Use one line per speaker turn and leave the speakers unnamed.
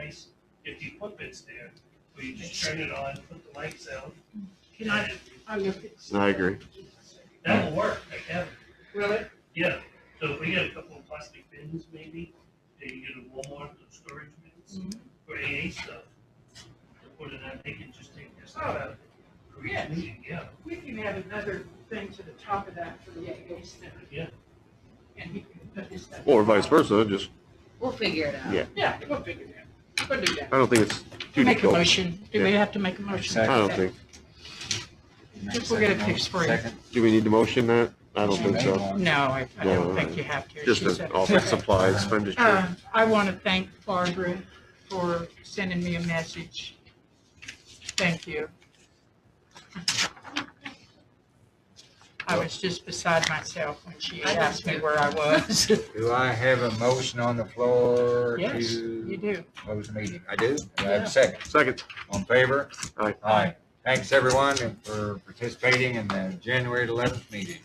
place if the equipment's there. Where you just turn it on, put the lights out,
Can I,
and
I look at.
I agree.
that'll work, I can,
Really?
yeah. So if we get a couple of plastic bins maybe, and you get a Walmart with storage
Mm-hmm.
bins for AA stuff. and Put it out, they can just take this out of it. for each
Yeah.
meeting, Yeah,
We can add another thing to the top of that for the AA center,
yeah,
and he can put his stuff.
Or vice versa, just,
We'll figure it out.
Yeah.
Yeah, we'll figure that, we'll do that.
I don't think it's too
Make a
difficult.
motion, do we have to make a motion?
I don't think,
Just we'll get a fix for you.
Second.
do we need to motion that? I don't think so.
No, I, I
No, uh,
don't think you have to.
Just
She
an
said-
office supplies, I'm just
Uh,
sure.
I want to thank Barbara for sending me a message. Thank you. I was just beside myself when she
I was
asked me
too.
where I was.
Do I have a motion on the floor
Yes, you
to
do.
close the meeting? I do. Do I have a second?
Second,
On favor?
Aye.
Aye. Thanks, everyone, for participating in the January eleventh meeting.